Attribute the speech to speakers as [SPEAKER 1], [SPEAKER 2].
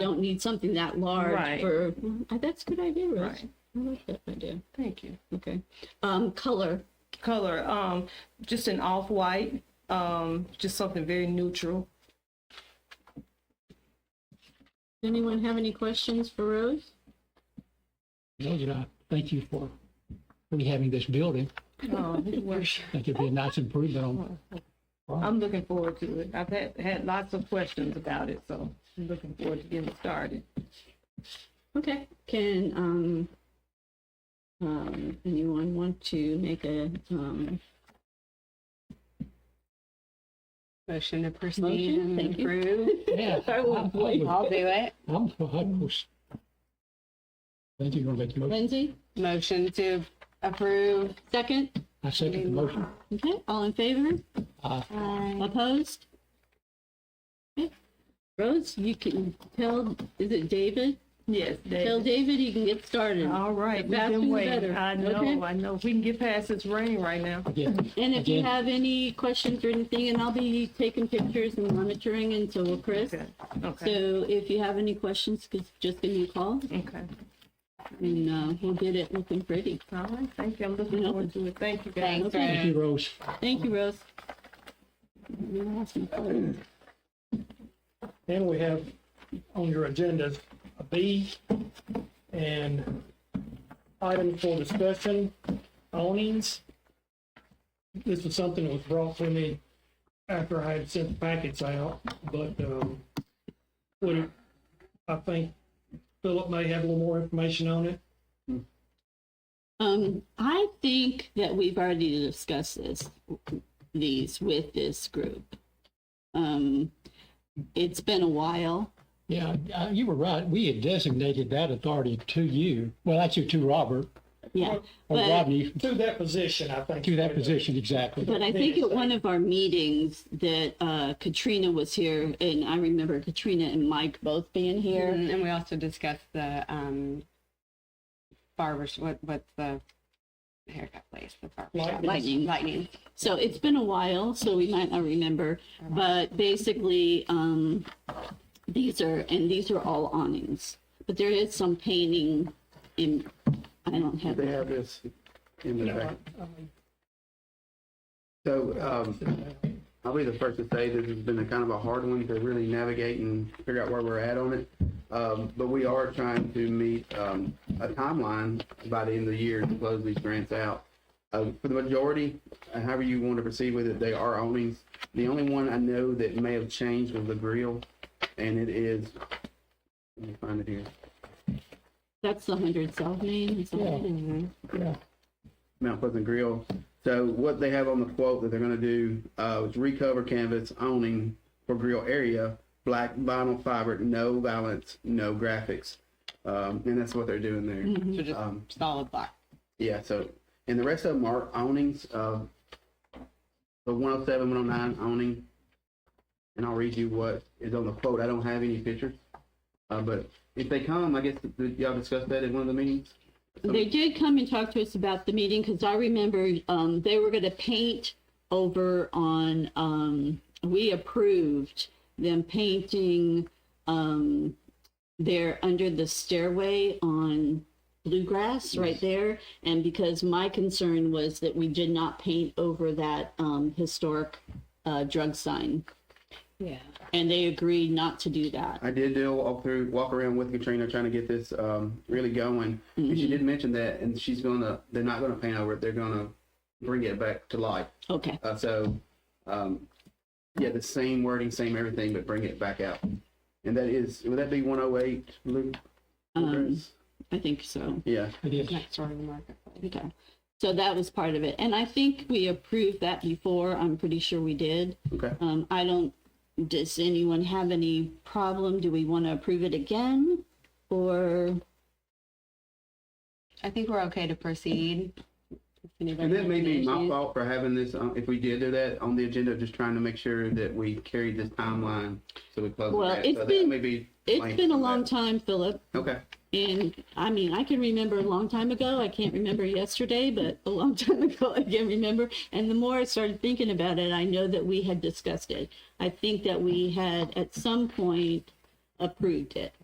[SPEAKER 1] don't need something that large
[SPEAKER 2] Right.
[SPEAKER 1] for, Mm, that's a good idea, Rose.
[SPEAKER 2] Right.
[SPEAKER 1] I like that idea.
[SPEAKER 2] Thank you.
[SPEAKER 1] Okay. Um, color,
[SPEAKER 2] Color, um, just an off-white, um, just something very neutral.
[SPEAKER 1] Does anyone have any questions for Rose?
[SPEAKER 3] No, you don't. Thank you for rehabbing this building.
[SPEAKER 4] Oh,
[SPEAKER 2] Um, it works.
[SPEAKER 3] I think it'd be a nice improvement on.
[SPEAKER 2] I'm looking forward to it. I've had, had lots of questions about it, so I'm looking forward to getting started.
[SPEAKER 1] Okay, can, um, um, anyone want to make a, um,
[SPEAKER 4] Motion to proceed
[SPEAKER 1] Motion,
[SPEAKER 4] and
[SPEAKER 1] thank you.
[SPEAKER 4] approve.
[SPEAKER 3] Yeah. I'm for it.
[SPEAKER 4] I'll do it.
[SPEAKER 3] I'm for huddles. Thank you, you're gonna make your motion.
[SPEAKER 1] Lindsay,
[SPEAKER 4] Motion to approve.
[SPEAKER 1] second?
[SPEAKER 3] I second the motion.
[SPEAKER 1] Okay, all in favor?
[SPEAKER 3] Uh,
[SPEAKER 1] Opposed? Okay. Rose, you can tell, is it David?
[SPEAKER 2] Yes, David.
[SPEAKER 1] Tell David he can get started.
[SPEAKER 2] All right,
[SPEAKER 1] The
[SPEAKER 2] we've
[SPEAKER 1] faster
[SPEAKER 2] been
[SPEAKER 1] the
[SPEAKER 2] waiting.
[SPEAKER 1] better,
[SPEAKER 2] I know,
[SPEAKER 1] okay?
[SPEAKER 2] I know. If we can get past this rain right now.
[SPEAKER 3] again,
[SPEAKER 1] And if you
[SPEAKER 3] Again.
[SPEAKER 1] have any questions or anything, and I'll be taking pictures and monitoring, and so will Chris.
[SPEAKER 2] Okay, okay,
[SPEAKER 1] So if you have any questions, just- just give me a call,
[SPEAKER 2] okay.
[SPEAKER 1] and uh, we'll get it looking pretty.
[SPEAKER 2] All right, thank you. I'm looking forward to it. Thank you, guys.
[SPEAKER 4] Thanks,
[SPEAKER 3] thank you,
[SPEAKER 4] Rose.
[SPEAKER 3] Rose.
[SPEAKER 1] Thank you, Rose. You lost my phone.
[SPEAKER 5] And we have on your agendas a B and item for discussion, awnings. This was something that was brought to me after I had sent the packets out, but, um, would, it- I think Philip may have a little more information on it.
[SPEAKER 1] Um, I think that we've already discussed this, these with this group. Um, it's been a while.
[SPEAKER 3] Yeah, uh, you were right. We had designated that authority to you. Well, actually to Robert
[SPEAKER 1] Yeah,
[SPEAKER 3] or
[SPEAKER 1] But-
[SPEAKER 3] Rodney,
[SPEAKER 5] To that position, I think.
[SPEAKER 3] to that position, exactly.
[SPEAKER 1] but I think at one of our meetings that uh, Katrina was here, and I remember Katrina and Mike both being here.
[SPEAKER 4] And we also discussed the um, barber, sh- what, what's the haircut place? The barber shop.
[SPEAKER 1] Lightning.
[SPEAKER 4] Lightning.
[SPEAKER 1] So it's been a while, so we might not remember. But basically, um, these are and these are all awnings, but there is some painting. In I don't have.
[SPEAKER 6] They have this in the back. So
[SPEAKER 5] uh,
[SPEAKER 6] um, I'll be the first to say this has been a kind of a hard one to really navigate and figure out where we're at on it. Um, But we are trying to meet um, a timeline by the end of the year to close these grants out. Uh, For the majority, uh, however you want to proceed with it, they are awnings. The only one I know that may have changed was the grill, and it is, let me find it here.
[SPEAKER 1] That's the hundred South Main. is that
[SPEAKER 3] Yeah.
[SPEAKER 1] it?
[SPEAKER 3] Yeah.
[SPEAKER 6] Mount Pleasant Grill. So what they have on the quote that they're gonna do, uh, is recover canvas owning for grill area, black vinyl fiber, no balance, no graphics. Um, and that's what they're doing there.
[SPEAKER 4] So just
[SPEAKER 6] Um,
[SPEAKER 4] solid block.
[SPEAKER 6] yeah, so, and the rest of them are awnings, uh, the 107, 109 awning. And I'll read you what is on the quote. I don't have any pictures. Uh, but if they come, I guess, did y'all discuss that in one of the meetings?
[SPEAKER 1] They did come and talk to us about the meeting because I remember um, they were going to paint over on, um, we approved them painting um, there under the stairway on bluegrass right there. And because my concern was that we did not paint over that um, historic uh, drug sign.
[SPEAKER 4] Yeah.
[SPEAKER 1] And they agreed not to do that.
[SPEAKER 6] I did do a walk through, walk around with Katrina, trying to get this um, really going. And
[SPEAKER 1] Mm-hmm.
[SPEAKER 6] she did mention that, and she's gonna, they're not gonna paint over it. They're gonna bring it back to life.
[SPEAKER 1] Okay.
[SPEAKER 6] Uh, so, um, yeah, the same wording, same everything, but bring it back out. And that is, would that be 108, Luke?
[SPEAKER 1] Um, I think so.
[SPEAKER 6] yeah.
[SPEAKER 3] It is.
[SPEAKER 4] Next door to the marketplace.
[SPEAKER 1] Okay, so that was part of it, and I think we approved that before, I'm pretty sure we did.
[SPEAKER 6] Okay.
[SPEAKER 1] Um, I don't, does anyone have any problem, do we want to approve it again? Or,
[SPEAKER 4] I think we're okay to proceed. If anybody
[SPEAKER 6] And that
[SPEAKER 4] has
[SPEAKER 6] may
[SPEAKER 4] any
[SPEAKER 6] be my
[SPEAKER 4] issues.
[SPEAKER 6] fault for having this, um, if we did do that on the agenda, just trying to make sure that we carried this timeline so we close
[SPEAKER 1] Well,
[SPEAKER 6] it out.
[SPEAKER 1] it's
[SPEAKER 6] so
[SPEAKER 1] been-
[SPEAKER 6] that may be
[SPEAKER 1] it's
[SPEAKER 6] blamed
[SPEAKER 1] been a
[SPEAKER 6] for that.
[SPEAKER 1] long time, Philip,
[SPEAKER 6] Okay.
[SPEAKER 1] and, I mean, I can remember a long time ago, I can't remember yesterday, but a long time ago, I can remember, and the more I started thinking about it, I know that we had discussed it. I think that we had, at some point, approved it.